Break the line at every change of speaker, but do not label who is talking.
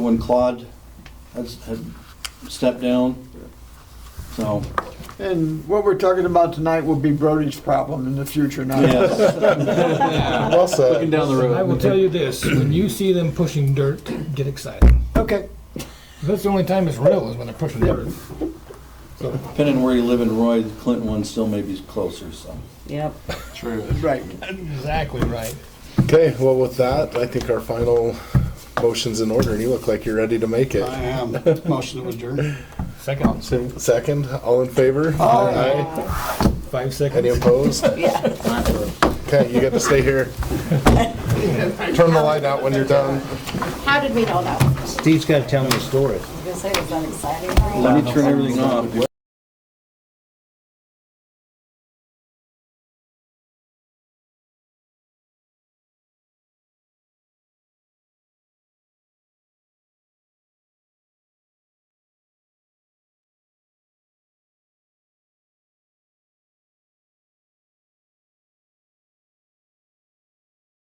when Claude has- had stepped down. So,
And what we're talking about tonight will be Brody's problem in the future, not ours.
yes,
Well
Looking
said.
down the road.
I will tell you this, when you see them pushing dirt, get excited.
Okay,
That's the only time it's real is when they're pushing dirt.
depending on where you live in Roy, the Clinton one still may be closer, so.
Yep.
True.
right.
Exactly right.
Okay, well, with that, I think our final motion's in order, and you look like you're ready to make it.
I am. Motion to adjourn.
Second,
Sim- Second, all in favor? Aye.
five
Any
seconds.
opposed? Okay, you get to stay here. Turn the light out when you're done.
How did we know that? I was
Steve's gotta tell me a story.
gonna say, was that exciting?
Let me turn everything off.